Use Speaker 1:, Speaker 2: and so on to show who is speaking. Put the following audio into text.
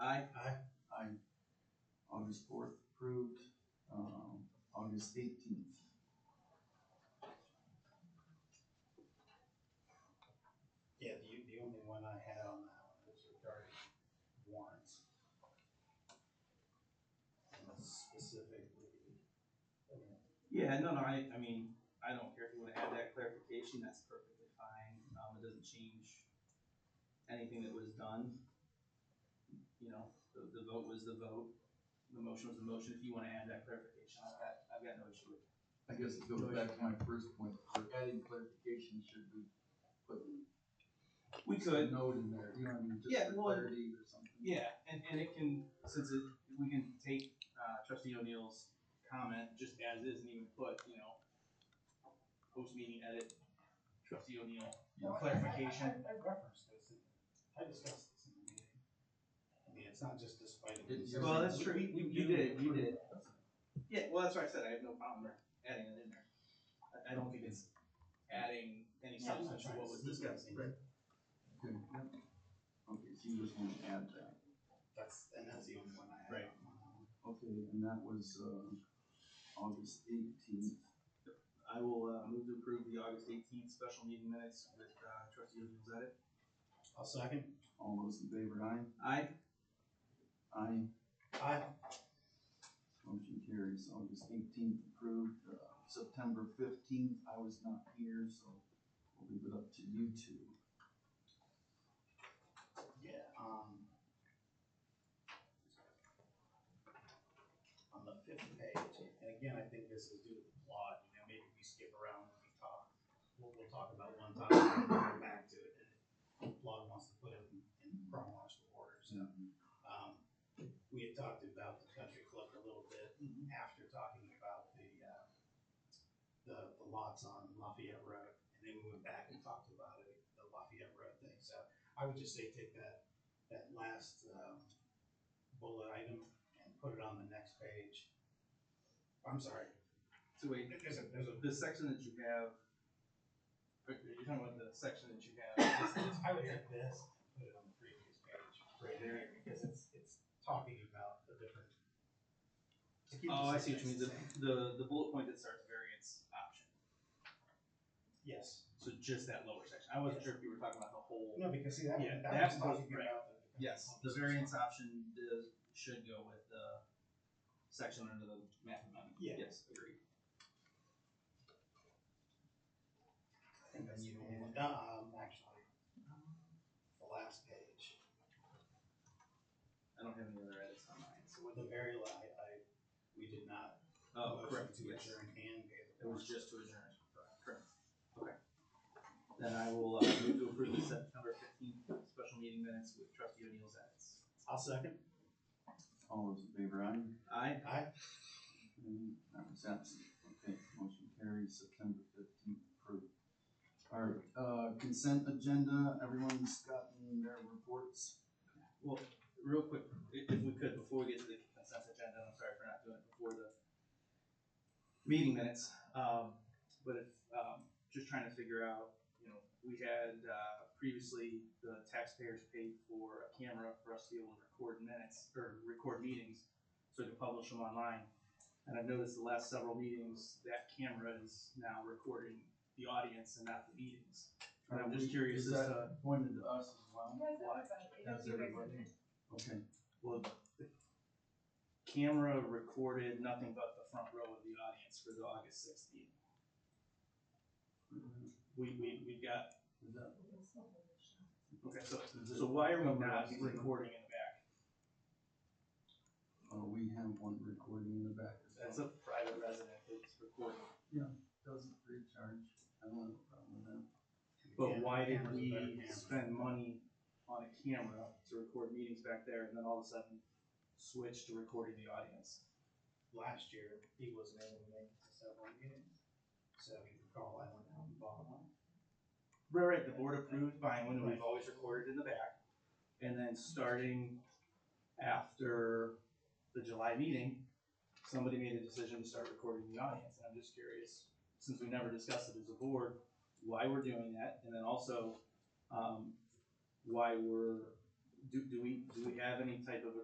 Speaker 1: is eighteenth.
Speaker 2: Yeah, the, the only one I had on that one was regarding warrants. And Specifically, I mean,
Speaker 3: Yeah, no, no, I, I mean, I don't care if you wanna add that clarification, that's perfectly fine, um, it doesn't change anything that was done. You know, the, the vote was the vote, the motion was the motion, if you wanna add that clarification, I've got, I've got no issue with it.
Speaker 1: I guess it goes back to my first point, for adding clarification, should we put
Speaker 3: We
Speaker 1: a
Speaker 3: could,
Speaker 1: note in there, you know, what I mean, just
Speaker 3: Yeah,
Speaker 1: for
Speaker 3: well,
Speaker 1: clarity or something?
Speaker 3: yeah, and, and it can, since it, we can take, uh, trustee O'Neill's comment just as is and even put, you know, post-meeting edit, trustee O'Neill,
Speaker 2: No, I- I-
Speaker 3: clarification.
Speaker 2: I, I referenced this, in- I discussed this in the meeting. I mean, it's not just despite. of-
Speaker 1: Did you-
Speaker 3: Well, that's true.
Speaker 2: We- we
Speaker 3: You
Speaker 2: do
Speaker 3: did, you did.
Speaker 2: approve that.
Speaker 3: Yeah, well, that's what I said, I have no problem adding it in there. I, I don't think it's adding any
Speaker 2: Yeah, I'm
Speaker 3: substance
Speaker 2: not
Speaker 3: to
Speaker 2: trying
Speaker 3: what
Speaker 2: to
Speaker 3: was
Speaker 2: sneak
Speaker 3: discussed.
Speaker 2: anything.
Speaker 1: Okay, yep. Okay, so you just want to add that,
Speaker 2: That's, and that's the only one I had.
Speaker 3: Right.
Speaker 2: on
Speaker 1: okay, and that was, uh, August eighteenth,
Speaker 3: I will, uh, move to approve the August eighteenth special meeting minutes with, uh, trustee O'Neill's edit.
Speaker 2: that. I'll second.
Speaker 1: all those in favor, aye?
Speaker 3: Aye.
Speaker 1: Aye,
Speaker 2: I,
Speaker 1: motion carries, August eighteenth approved, uh, September fifteenth, I was not here, so we'll leave it up to you two.
Speaker 2: yeah, um. On the fifth page, and again, I think this is due to the plot, you know, maybe we skip around when we talk. We'll, we'll talk about one topic and then go back to it, and the plot wants to put it in- in chronological order, so.
Speaker 1: Yeah.
Speaker 2: Um, we had talked about the country club a little bit after talking about the, uh, the, the lots on Lafayette Road, and then we went back and talked about it, the Lafayette Road thing, so I would just say take that, that last, um, bullet item and put it on the next page. I'm sorry,
Speaker 3: So wait,
Speaker 2: there's a, there's a,
Speaker 3: the section that you have, are you talking about the section that you have? this-
Speaker 2: I would take this and put it on the previous page, right there, because it's, it's talking about the different. to keep the
Speaker 3: Oh, I see what you mean, the,
Speaker 2: subjects the same.
Speaker 3: the, the bullet point that starts variance option,
Speaker 2: Yes.
Speaker 3: so just that lower section, I wasn't sure if you were talking about the whole.
Speaker 2: No, because see, that,
Speaker 3: Yeah,
Speaker 2: that,
Speaker 3: that
Speaker 2: was
Speaker 3: was-
Speaker 2: talking
Speaker 3: right.
Speaker 2: about the.
Speaker 3: Yes, the variance option uh, should go with the section under the map amendment.
Speaker 2: Yeah.
Speaker 3: Yes, agreed.
Speaker 2: And then you, um, actually, the last page,
Speaker 3: I don't have any other edits on mine.
Speaker 2: so with the very, la- I, I, we did not.
Speaker 3: Oh,
Speaker 2: motion
Speaker 3: correct,
Speaker 2: To
Speaker 3: yes.
Speaker 2: adjourn and pay the.
Speaker 3: It was just to adjourn. Correct. Okay. Then I will uh, move to approve the September fifteenth special meeting minutes with trustee O'Neill's edits.
Speaker 2: I'll second.
Speaker 1: All those in favor, aye?
Speaker 3: Aye.
Speaker 2: Aye.
Speaker 1: Mm, That was absent. Okay, motion carries September fifteenth approved. All right, uh, consent agenda, everyone's gotten their reports.
Speaker 3: Well, real quick, i- if we could, before we get to the consent agenda, and I'm sorry for not doing it before the meeting minutes, um, but if, um, just trying to figure out, you know, we had, uh, previously, the taxpayers paid for a camera for us to be able to record minutes, or record meetings, so we could publish them online. And I've noticed the last several meetings, that camera is now recording the audience and not the meetings. And I'm just curious uh,
Speaker 1: Is
Speaker 3: as
Speaker 1: that
Speaker 3: to,
Speaker 1: pointed to us as well?
Speaker 4: Yes,
Speaker 3: Why?
Speaker 4: everybody.
Speaker 1: That's
Speaker 4: That's your
Speaker 1: everybody.
Speaker 4: resident.
Speaker 1: Okay,
Speaker 3: Well, the camera recorded nothing but the front row of the audience for the August sixth meeting. We, we, we've got,
Speaker 1: is that,
Speaker 3: okay, so,
Speaker 1: is
Speaker 3: so
Speaker 1: it,
Speaker 3: why are we not recording in the back?
Speaker 1: oh, we have one recording in the back. as well.
Speaker 3: That's a private resident that's recording.
Speaker 1: Doesn't free charge, I don't have a problem with that.
Speaker 3: But why did
Speaker 2: Camera's a better
Speaker 3: we
Speaker 2: camera.
Speaker 3: spend money on a camera to record meetings back there and then all of a sudden switch to recording the audience?
Speaker 2: Last year, he wasn't able to make it to several meetings, so if you recall, I went out and bought one.
Speaker 3: Right, right, the board approved buying one, and we've always recorded in the back. And then starting after the July meeting, somebody made a decision to start recording the audience, and I'm just curious, since we never discussed it as a board, why we're doing that, and then also, um, why we're, do, do we, do we have any type of a